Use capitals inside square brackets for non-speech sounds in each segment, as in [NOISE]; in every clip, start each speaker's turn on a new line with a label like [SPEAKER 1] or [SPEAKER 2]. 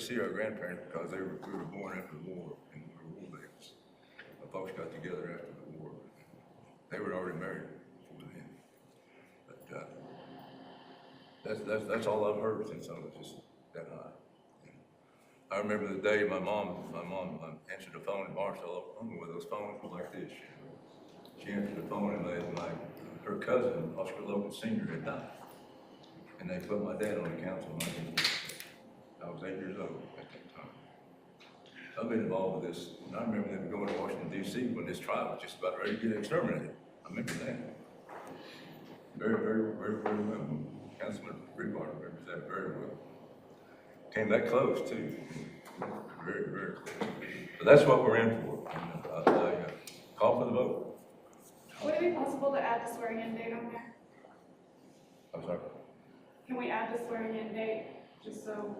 [SPEAKER 1] see our grandparents because they were, we were born after the war and we were war babies. My folks got together after the war. They were already married before then. But, uh, that's, that's, that's all I've heard since I was just that high. I remember the day my mom, my mom um, answered the phone in Marshall, Oklahoma, with those phones were like this. She answered the phone and they, my, her cousin, Oscar Logan Senior, had died. And they put my dad on the council. and I didn't- I was eight years old at that time. I've been involved with this, and I remember them going to Washington DC when this tribe was just about ready to get exterminated. I remember that. Very, very, very, very well. Councilman Rebar remembers that very well. Came that close too. Very, very close. But that's what we're in for. And, uh, I, uh, Call for the vote.
[SPEAKER 2] Would it be possible to add the swearing in date on there?
[SPEAKER 1] I'm sorry,
[SPEAKER 2] Can we add the swearing in date, just so?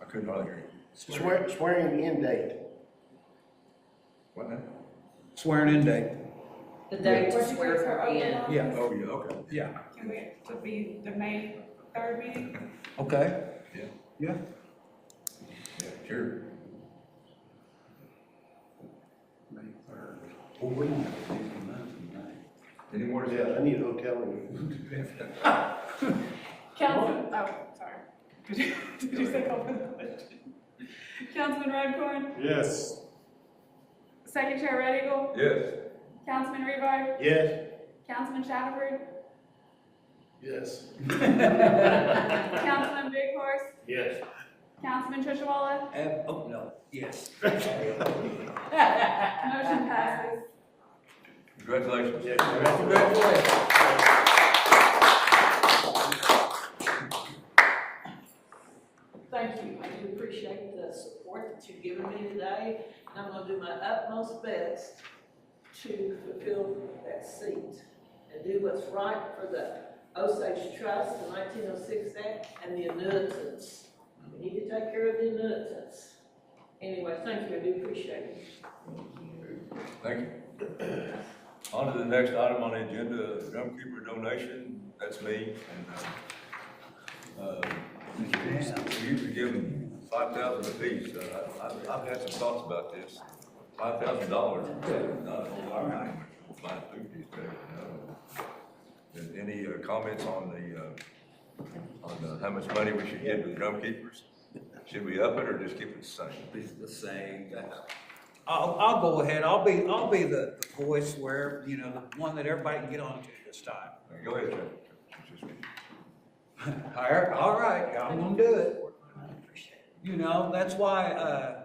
[SPEAKER 1] I couldn't hardly hear you.
[SPEAKER 3] Swear, swearing in date.
[SPEAKER 1] What now?
[SPEAKER 4] Swearing in date,
[SPEAKER 5] The date to
[SPEAKER 2] Would you
[SPEAKER 5] swear
[SPEAKER 2] please
[SPEAKER 5] her in.
[SPEAKER 2] open
[SPEAKER 4] yeah,
[SPEAKER 1] Oh, yeah, okay,
[SPEAKER 4] yeah,
[SPEAKER 2] up? Can we, to be the May third meeting?
[SPEAKER 4] okay,
[SPEAKER 1] yeah,
[SPEAKER 4] yeah.
[SPEAKER 1] yeah, sure.
[SPEAKER 4] May third. Well, we don't have to do the month in
[SPEAKER 1] Any more
[SPEAKER 3] Yeah, I
[SPEAKER 1] discussion?
[SPEAKER 3] need a hotel room.
[SPEAKER 2] Councilman, oh, sorry. [LAUGHS] Did you, did you say call for the question? Councilman Redcorn,
[SPEAKER 3] Yes.
[SPEAKER 2] Second Chair Red Eagle,
[SPEAKER 1] Yes.
[SPEAKER 2] Councilman Rebar,
[SPEAKER 3] Yes.
[SPEAKER 2] Councilman Shackelford,
[SPEAKER 3] Yes.
[SPEAKER 4] [LAUGHS]
[SPEAKER 2] Councilman Big Horse,
[SPEAKER 3] [LAUGHS] Yes.
[SPEAKER 2] Councilman Tishawala,
[SPEAKER 4] May. Uh, oh, no, yes.
[SPEAKER 2] motion passes.
[SPEAKER 1] Congratulations.
[SPEAKER 3] Yeah,
[SPEAKER 1] Congratulations.
[SPEAKER 5] Thank you, I do appreciate the support that you've given me today, and I'm gonna do my utmost best to fulfill that seat and do what's right for the Osage Trust, the nineteen oh six Act, and the annuitants. We need to take care of the annuitants. Anyway, thank you, I do appreciate it.
[SPEAKER 1] Thank you. On to the next item on the agenda, drumkeeper donation, that's me, and, uh, uh, Mr. Hughes, you could give them five thousand apiece, Uh, I- I've, I've had some thoughts about this. Five thousand dollars, not a whole lot of money, but my food is better than that. And Any uh, comments on the, uh, on uh, how much money we should give to the drumkeepers? Should we up it or just keep it the same?
[SPEAKER 4] It's the same. I'll, I'll go ahead, I'll be, I'll be the the voice where, you know, the one that everybody can get on to this time.
[SPEAKER 1] Go ahead, Chuck.
[SPEAKER 4] Higher, all right, I'm gonna do it.
[SPEAKER 5] I appreciate it.
[SPEAKER 4] You know, that's why, uh,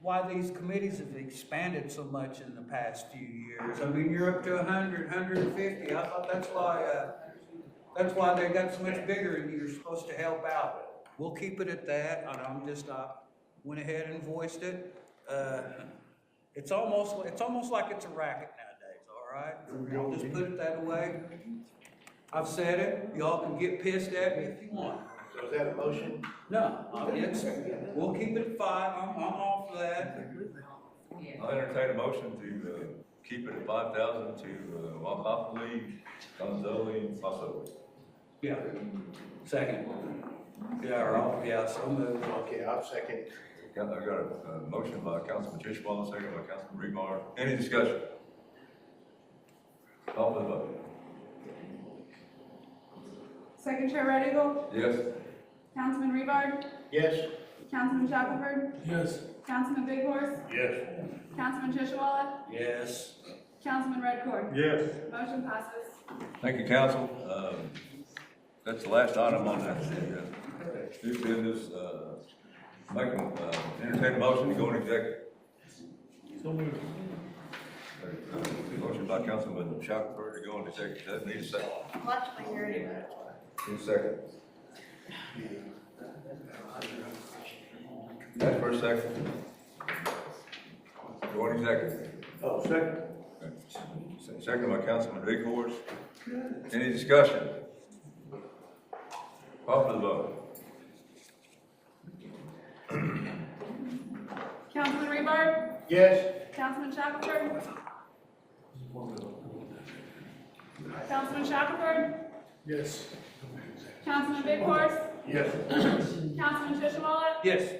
[SPEAKER 4] why these committees have expanded so much in the past few years. I mean, you're up to a hundred, hundred and fifty. I thought that's why, uh, that's why they got so much bigger and you're supposed to help out. We'll keep it at that. And I'm just, I went ahead and voiced it. Uh, it's almost, it's almost like it's a racket nowadays, all right? I'll just put it that way. I've said it. Y'all can get pissed at me if you want.
[SPEAKER 3] So is that a motion?
[SPEAKER 4] No, I mean, it's, we'll keep it at five, I'm, I'm all for that.
[SPEAKER 1] I'll entertain a motion to, uh, keep it at five thousand to, uh, Wapopoli, Gonzoli, and Paso.
[SPEAKER 4] Yeah. Second. Yeah, or all, yeah, so moved.
[SPEAKER 3] Okay, I'll second.
[SPEAKER 1] I got a, uh motion by Councilman Tishwal, second by Councilman Rebar. Any discussion? Call for the vote.
[SPEAKER 2] Second Chair Red Eagle,
[SPEAKER 1] Yes?
[SPEAKER 2] Councilman Rebar,
[SPEAKER 3] Yes.
[SPEAKER 2] Councilman Shackelford,
[SPEAKER 3] Yes.
[SPEAKER 2] Councilman Big Horse,
[SPEAKER 3] Yes.
[SPEAKER 2] Councilman Tishawala,
[SPEAKER 4] Yes.
[SPEAKER 2] Councilman Redcorn.
[SPEAKER 3] Yes.
[SPEAKER 2] Motion passes.
[SPEAKER 1] Thank you, council. Um, that's the last item on that. uh, New business, uh, make, a- uh, entertain a motion to go into executive. So moved. Motion by Councilman Shackelford to go into executive. Doesn't need a second. Need a second. That's for a second. Go into executive.
[SPEAKER 3] Oh, second.
[SPEAKER 1] Second by Councilman Big Horse. Any discussion? Call for the vote.
[SPEAKER 2] Councilman Rebar,
[SPEAKER 3] Yes.
[SPEAKER 2] Councilman Shackelford. Councilman Shackelford,
[SPEAKER 3] Yes.
[SPEAKER 2] Councilman Big Horse,
[SPEAKER 3] Yes.
[SPEAKER 2] Councilman Tishawala,
[SPEAKER 4] Yes.